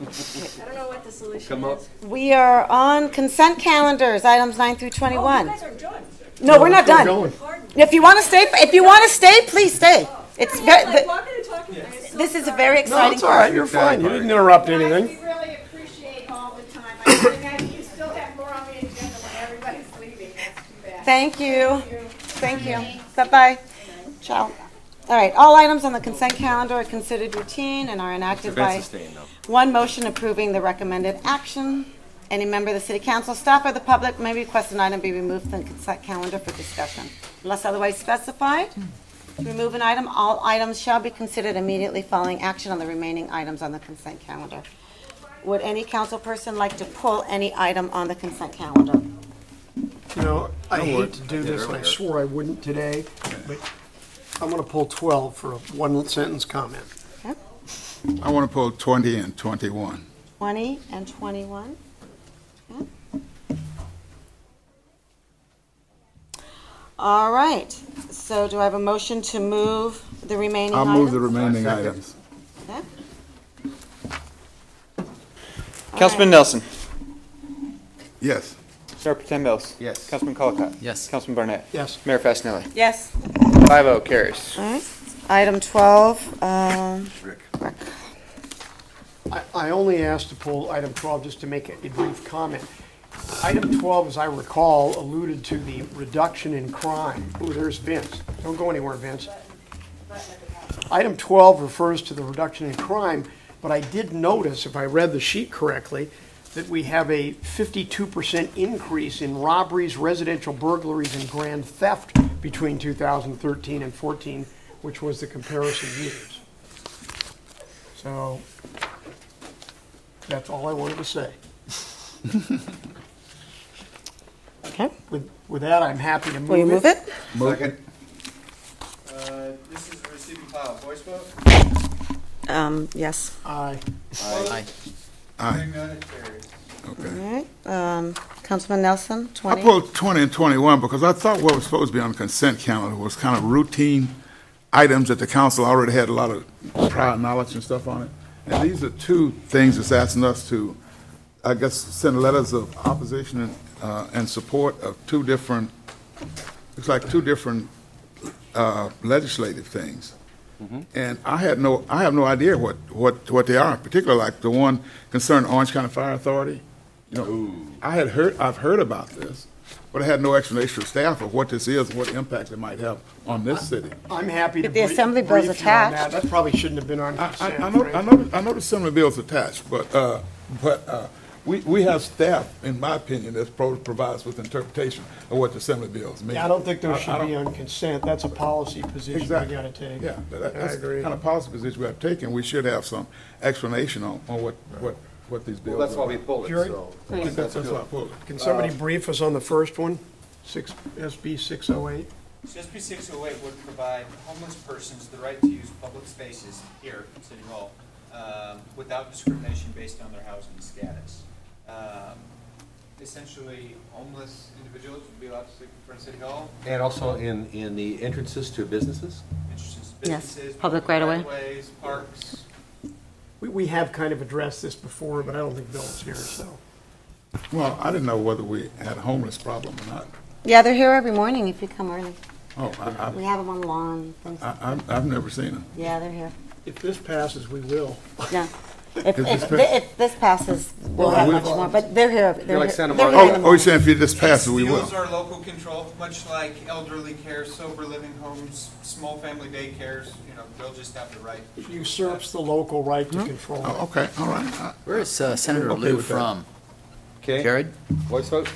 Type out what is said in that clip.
I don't know what the solution Come up. is. We are on consent calendars, items nine through Oh, you twenty-one. guys are done. No, we're not done. going. Pardon. If you want to stay, if you want to stay, please stay. It's, Sorry, I'm ve- like the- walking and talking. I'm so this is a sorry. very No, exciting it's all right, you're fine, you didn't interrupt Guys, anything. we really appreciate all the time. I think I- you still have more on the agenda when everybody's leaving. That's too bad. Thank you. you. Thank you. Bye-bye. Ciao. All right, all items on the consent calendar are considered routine and are enacted by Vince is staying though. one motion approving the recommended action. Any member of the city council, staff, or the public may request an item be removed from the consent calendar for discussion. Unless otherwise specified, to remove an item, all items shall be considered immediately following action on the remaining items on the consent calendar. Would any council person like to pull any item on the consent calendar? You know, I hate to I do did this, and I earlier. swore I wouldn't today, but I'm gonna pull twelve for a one-sentence comment. I want to pull 20 and 21. 20 and 21. Okay. All right, so do I have a motion to move the remaining I'll items? move the remaining Second. items. Okay. Councilman Nelson. Yes. Mayor Potem Mills. Yes. Councilman Colacott. Yes. Councilman Barnett. Yes. Mayor Fasenelli. Yes. Five oh carries. All right, item 12, um, Rick. Rick. I, I only asked to pull item 12 just to make a brief comment. Item 12, as I recall, alluded to the reduction in crime. Ooh, there's Vince. Don't go anywhere, Vince. Item 12 refers to the reduction in crime, but I did notice, if I read the sheet correctly, that we have a 52% increase in robberies, residential burglaries, and grand theft between 2013 and 14, which was the comparison years. So that's all I wanted to say. Okay, With, with that, I'm happy to move it. will you move it? Second. Uh, This is a receive and file voice vote. Um, yes. Aye. Aye. Aye. All Okay. right, um, Councilman Nelson, I 20. pulled 20 and 21 because I thought what was supposed to be on the consent calendar was kind of routine items that the council already had a lot of prior knowledge and stuff on it. And these are two things that's asking us to, I guess, send letters of opposition and, uh, and support of two different, it's like two different uh, legislative things. And I had no, I have no idea what, what, what they are, particularly like the one concerning Orange County Fire Authority. You know, I had heard, I've heard about this, but I had no explanation of staff of what this is, what impact it might have on this city. I'm happy to But the brief assembly bill's brief you on attached. that. That probably shouldn't have been on I, I, consent. I know, I right? know, I know the similar bills attached, but, uh, but, uh, we, we have staff, in my opinion, that pro- provides with interpretation of what the assembly bills mean. Yeah, I don't think those I- I should be don't- on consent. That's a policy position we Exactly. gotta take. Yeah, but that- I that's the agree. kind of policy position we have taken. We should have some explanation on, on what, what, what these bills Well, are. that's why we pulled it, Jerry? so. That's that's why I pulled it. Can somebody brief us on the first one? uh, Six, oh SB 608? SB 608 would provide homeless persons the right to use public spaces here in City Hall um, without discrimination based on their housing status. Um, Essentially, homeless individuals would be allowed to sleep in front of City Hall, And also in, in the entrances to businesses? entrances to Yes, businesses. public right-of-way. Ways, parks. We, we have kind of addressed this before, but I don't think Bill's here, so. Well, I didn't know whether we had a homeless problem or not. Yeah, they're here every morning if you come early. Oh, I, We have them on the lawn, things, I, I, I've- I've never seen them. yeah, they're here. If this passes, we will. No. If, If if, this pa- thi- if this passes, we'll Well, have we- much more, but they're here, they're like here. Santa they're Monica. here in the Oh, oh, you're morning. saying if you just pass it, we will? Those are local control, much like elderly care, sober living homes, small family daycares, you know, they'll just have the right. It Usurps the local right Hmm? to control. Oh, okay, all right. I- Where is uh, Senator Okay Lou with that. from? Okay. Jared? Voice vote?